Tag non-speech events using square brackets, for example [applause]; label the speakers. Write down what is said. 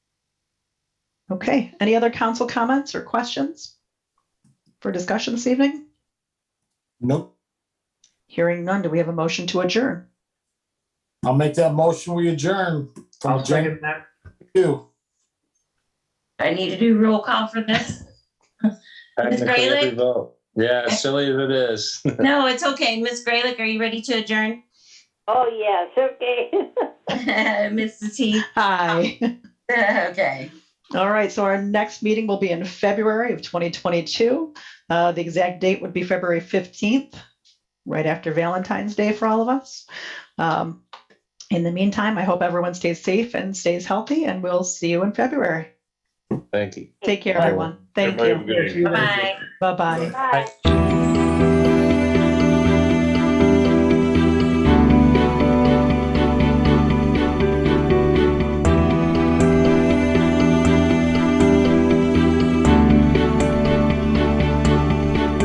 Speaker 1: Okay, any other council comments or questions for discussion this evening?
Speaker 2: Nope.
Speaker 1: Hearing none, do we have a motion to adjourn?
Speaker 2: I'll make that motion. We adjourn from
Speaker 3: I'll
Speaker 2: agenda
Speaker 3: second that.
Speaker 2: two.
Speaker 4: I need to do roll call for this. Ms.
Speaker 5: Technically, every
Speaker 4: Grayling?
Speaker 5: vote. Yeah, as silly as it is. [laughs]
Speaker 4: No, it's okay. Ms. Graylick, are you ready to adjourn?
Speaker 6: Oh, yes, okay. [laughs]
Speaker 4: [laughs] Mrs. T.
Speaker 1: Aye.
Speaker 4: Okay.
Speaker 1: [laughs] All right, so our next meeting will be in February of 2022. Uh, The exact date would be February 15th, right after Valentine's Day for all of us. Um, In the meantime, I hope everyone stays safe and stays healthy, and we'll see you in February.
Speaker 5: Thank you.
Speaker 1: Take care,
Speaker 5: Bye.
Speaker 1: everyone. Thank
Speaker 5: Everybody have a
Speaker 1: you.
Speaker 5: good evening.
Speaker 4: Bye-bye.
Speaker 1: Bye-bye.
Speaker 6: Bye.
Speaker 2: Aye.